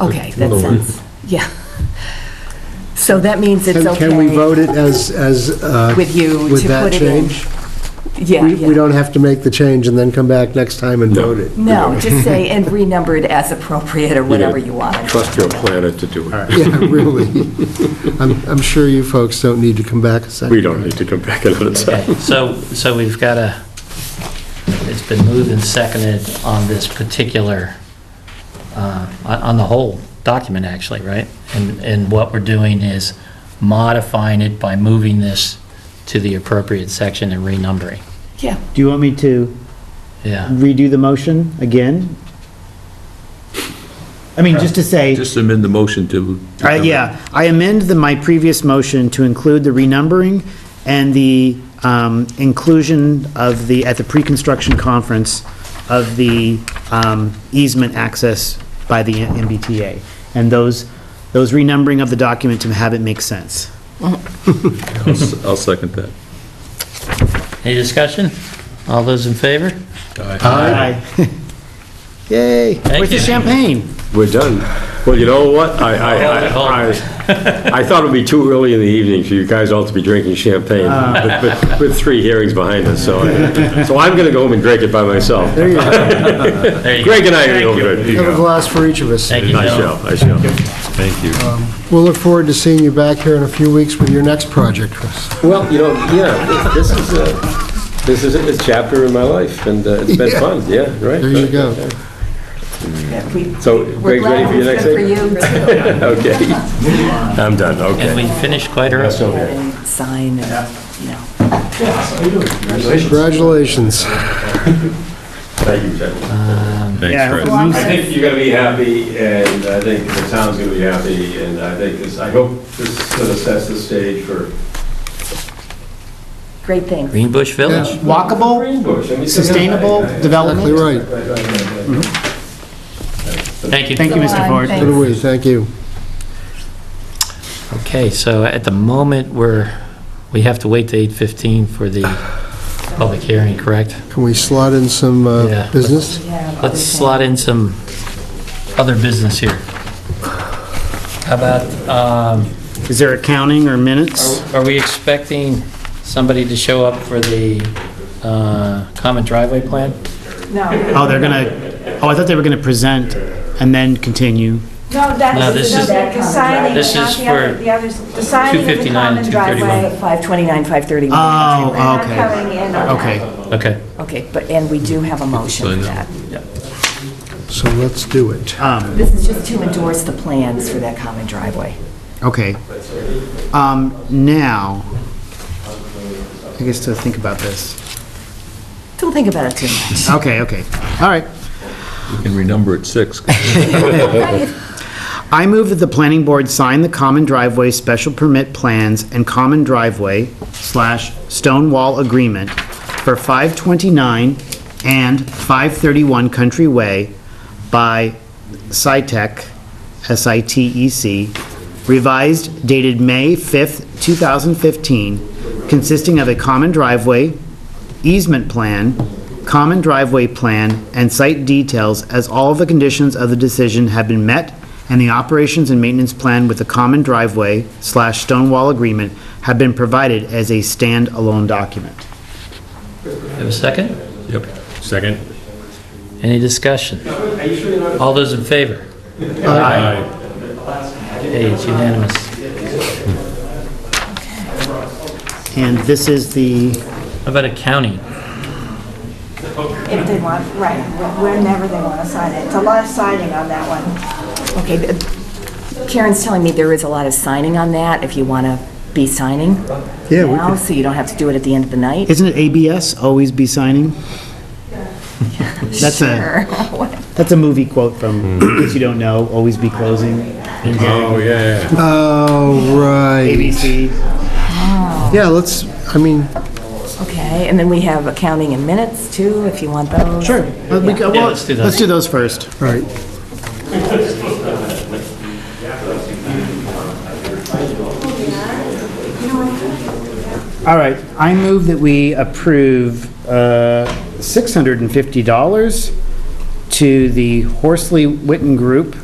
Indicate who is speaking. Speaker 1: Okay,
Speaker 2: No,
Speaker 1: that
Speaker 2: no.
Speaker 1: sounds, yeah. So that means it's
Speaker 3: Can
Speaker 1: okay.
Speaker 3: can we vote it as, as, uh,
Speaker 1: With you
Speaker 3: with
Speaker 1: to
Speaker 3: that
Speaker 1: put it in.
Speaker 3: change?
Speaker 1: Yeah,
Speaker 3: We we
Speaker 1: yeah.
Speaker 3: don't have to make the change and then come back next time and
Speaker 2: No.
Speaker 3: vote it?
Speaker 1: No, just say, and renumber it as appropriate or whatever you want.
Speaker 2: Trust your planner to do it.
Speaker 3: Yeah, really. I'm, I'm sure you folks don't need to come back a second.
Speaker 2: We don't need to come back another time.
Speaker 4: Okay, so, so we've got a, it's been moved and seconded on this particular, uh, on on the whole document, actually, right? And, and what we're doing is modifying it by moving this to the appropriate section and renumbering.
Speaker 1: Yeah,
Speaker 5: Do you want me to
Speaker 4: Yeah,
Speaker 5: redo the motion again? I mean, just to say,
Speaker 6: Just amend the motion to.
Speaker 5: I- yeah, I amend the, my previous motion to include the renumbering and the um, inclusion of the, at the pre-construction conference, of the um, easement access by the MBTA. And those, those renumbering of the document to have it make sense.
Speaker 6: I'll s- I'll second that.
Speaker 4: any discussion? All those in favor?
Speaker 5: Aye. Yay, where's the
Speaker 4: you.
Speaker 5: champagne?
Speaker 2: We're done. Well, you know what? I, I,
Speaker 4: Hold
Speaker 2: I,
Speaker 4: it,
Speaker 2: I- I thought it'd be too early in the evening for you guys all to be drinking champagne
Speaker 3: Ah.
Speaker 2: with- with, with three hearings behind us, so, I- so I'm gonna go home and drink it by myself.
Speaker 3: There you go.
Speaker 4: There you go.
Speaker 2: Greg and I are over
Speaker 3: Have a
Speaker 2: there.
Speaker 3: glass for each of us.
Speaker 4: Thank you,
Speaker 2: I
Speaker 4: Bill.
Speaker 2: shall, I shall.
Speaker 6: Thank you.
Speaker 3: We'll look forward to seeing you back here in a few weeks with your next project, Chris.
Speaker 2: Well, you know, yeah, this is a, this is a chapter in my life, and uh, it's been
Speaker 3: Yeah.
Speaker 2: fun, yeah, right?
Speaker 3: There you go.
Speaker 1: yeah, we-
Speaker 2: So
Speaker 1: we're
Speaker 2: Greg's ready
Speaker 1: glad
Speaker 2: for your
Speaker 1: it's
Speaker 2: next
Speaker 1: good
Speaker 2: thing?
Speaker 1: for you.
Speaker 2: Okay. I'm done,
Speaker 4: And we
Speaker 2: okay.
Speaker 4: finished quite early.
Speaker 2: That's okay.
Speaker 1: And Sign, and, you know.
Speaker 3: Congratulations.
Speaker 2: Thank you, gentlemen.
Speaker 6: Thanks,
Speaker 5: Yeah.
Speaker 6: Fred.
Speaker 2: I think you're gonna be happy, and I think the town's gonna be happy, and I think this, I hope this sort of sets the stage for
Speaker 1: Great things.
Speaker 4: Green Bush Village.
Speaker 5: Walkable,
Speaker 2: Green Bush. I mean,
Speaker 5: sustainable
Speaker 3: Exactly
Speaker 5: development.
Speaker 3: right.
Speaker 2: Right, right, right, right.
Speaker 4: Thank you.
Speaker 5: Thank you, Mr. Ford.
Speaker 3: Good way, thank you.
Speaker 4: Okay, so at the moment, we're, we have to wait to 8:15 for the public hearing, correct?
Speaker 3: Can we slot in some uh,
Speaker 4: Yeah.
Speaker 3: business?
Speaker 1: Yeah, other
Speaker 4: Let's
Speaker 1: things.
Speaker 4: slot in some other business here. How about, um,
Speaker 5: Is there accounting or minutes?
Speaker 4: are we expecting somebody to show up for the uh, common driveway plan?
Speaker 7: No,
Speaker 5: Oh, they're gonna, oh, I thought they were gonna present and then continue.
Speaker 7: no,
Speaker 4: No, this
Speaker 7: that's,
Speaker 4: is-
Speaker 7: no, the signing,
Speaker 4: this is
Speaker 7: not the other,
Speaker 4: for
Speaker 7: the others, the signing of the
Speaker 4: 259 and
Speaker 7: common
Speaker 4: 231.
Speaker 7: driveway.
Speaker 1: 529, 531.
Speaker 5: Oh,
Speaker 3: uh-
Speaker 7: We're not
Speaker 5: okay,
Speaker 7: coming in on that.
Speaker 5: okay.
Speaker 4: Okay.
Speaker 1: Okay, but, and we do have a motion for that.
Speaker 3: So let's do it.
Speaker 5: Um,
Speaker 1: This is just to endorse the plans for that common driveway.
Speaker 5: Okay. Um, now, I guess to think about this.
Speaker 1: Don't think about it too much.
Speaker 5: Okay, okay, all right.
Speaker 6: You can renumber at six.
Speaker 5: I move that the planning board sign the common driveway special permit plans and common driveway slash stone wall agreement for 529 and 531 Country Way by SITEC, S-I-T-E-C, E revised dated May 5th, 2015, consisting of a common driveway, easement plan, common driveway plan, and site details as all the conditions of the decision have been met and the operations and maintenance plan with the common driveway slash stone wall agreement have been provided as a standalone document.
Speaker 4: Have a second?
Speaker 6: Yep. Second.
Speaker 4: Any discussion? All those in favor? Aye. Okay, it's unanimous.
Speaker 5: And this is the,
Speaker 4: How about accounting?
Speaker 7: If they want, right, whenever they want to sign it. It's a lot of signing on that one.
Speaker 1: Okay, th- Karen's telling me there is a lot of signing on that, if you want to be signing
Speaker 3: Yeah, we
Speaker 1: now,
Speaker 3: could-
Speaker 1: so you don't have to do it at the end of the night.
Speaker 5: isn't it ABS, always be signing? That's a,
Speaker 1: Sure.
Speaker 5: that's a movie quote from, in case you don't know, always be closing.
Speaker 2: Oh, yeah, yeah.
Speaker 3: Oh, right.
Speaker 5: ABC.
Speaker 3: Yeah, let's, I mean,
Speaker 1: Okay, and then we have accounting and minutes, too, if you want those.
Speaker 5: Sure. Well, we go-
Speaker 4: Yeah,
Speaker 5: well,
Speaker 4: let's do those.
Speaker 5: Let's do those first.
Speaker 3: all right.
Speaker 5: All right, I move that we approve uh, $650 to the Horsley Witten Group